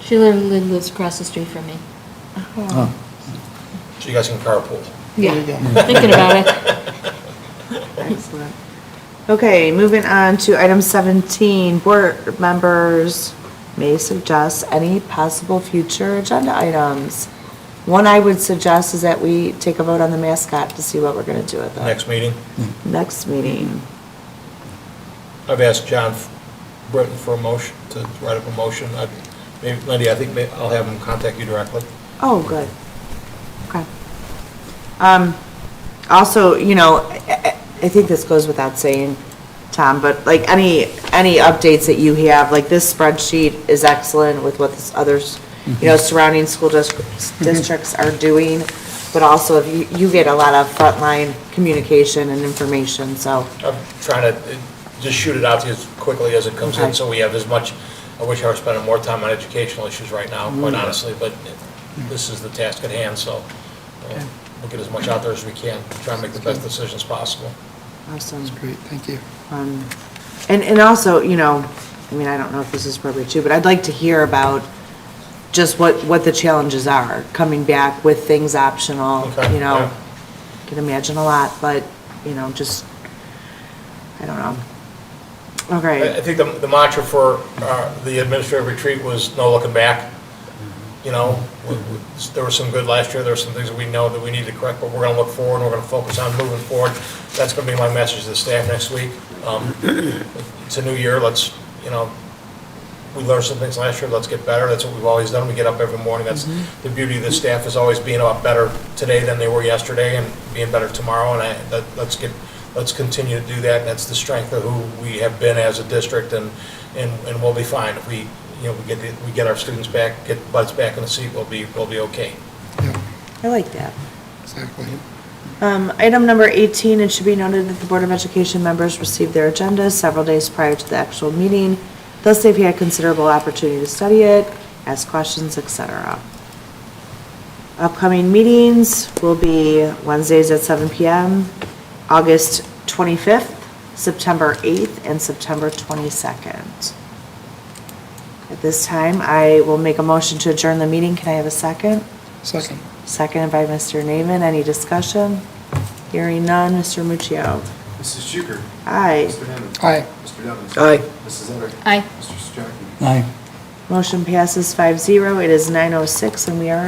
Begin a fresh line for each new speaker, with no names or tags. She literally lives across the street from me.
Oh.
So you guys can carpool.
Yeah,
There you go.
thinking about it.
Excellent. Okay, moving on to item 17, board members may suggest any possible future agenda items. One I would suggest is that we take a vote on the mascot to see what we're going to do with it.
Next meeting,
Next meeting.
I've asked John Britton for a motion, to write up a motion. I- Maybe, Lindy, I think may- I'll have him contact you directly.
Oh, good. Okay. Um, also, you know, I- I, I think this goes without saying, Tom, but like any, any updates that you have, like this spreadsheet is excellent with what this others, you know, surrounding school districts, districts are doing. But also, if you, you get a lot of frontline communication and information, so,
I'm trying to uh, just shoot it out to you as quickly as it comes in,
Okay.
so we have as much, I wish I were spending more time on educational issues right now,
Mm.
quite honestly, but this is the task at hand, so uh, we'll get as much out there as we can, try and make the best decisions possible.
awesome.
That's great, thank you.
Um, And, and also, you know, I mean, I don't know if this is appropriate too, but I'd like to hear about just what, what the challenges are, coming back with things optional,
Okay,
you
yeah.
know. Can imagine a lot, but, you know, just, I don't know.
I I
Okay,
think the the mantra for uh, the administrative retreat was no looking back. You know, we- we- there was some good last year, there were some things that we know that we need to correct, but we're going to look forward, and we're going to focus on moving forward. That's going to be my message to the staff next week. Um, It's a new year, let's, you know, we learned some things last year, let's get better, that's what we've always done, we get up every morning, that's the beauty of the staff, is always being a lot better today than they were yesterday, and being better tomorrow, and I, that, let's get, let's continue to do that, and that's the strength of who we have been as a district, and, and, and we'll be fine, if we, you know, we get, the- we get our students back, get butts back in the seat, we'll be, we'll be okay.
Yeah,
I like that.
exactly.
Um, Item number 18, it should be noted that the Board of Education members received their agenda several days prior to the actual meeting. Thus, they've had considerable opportunity to study it, ask questions, et cetera. Upcoming meetings will be Wednesdays at 7 PM, August 25th, September 8th, and September 22nd. At this time, I will make a motion to adjourn the meeting. Can I have a second?
Second.
Seconded by Mr. Naaman. Any discussion? Hearing none. Mr. Muccio.
Mrs. Shuker.
Aye.
Mr. Hammond.
Aye.
Mr. Dobbins.
Aye.
Mrs. Etter.
Aye.
Mr. Stracken.
Aye.
Motion passes 5-0. It is 9:06 and we are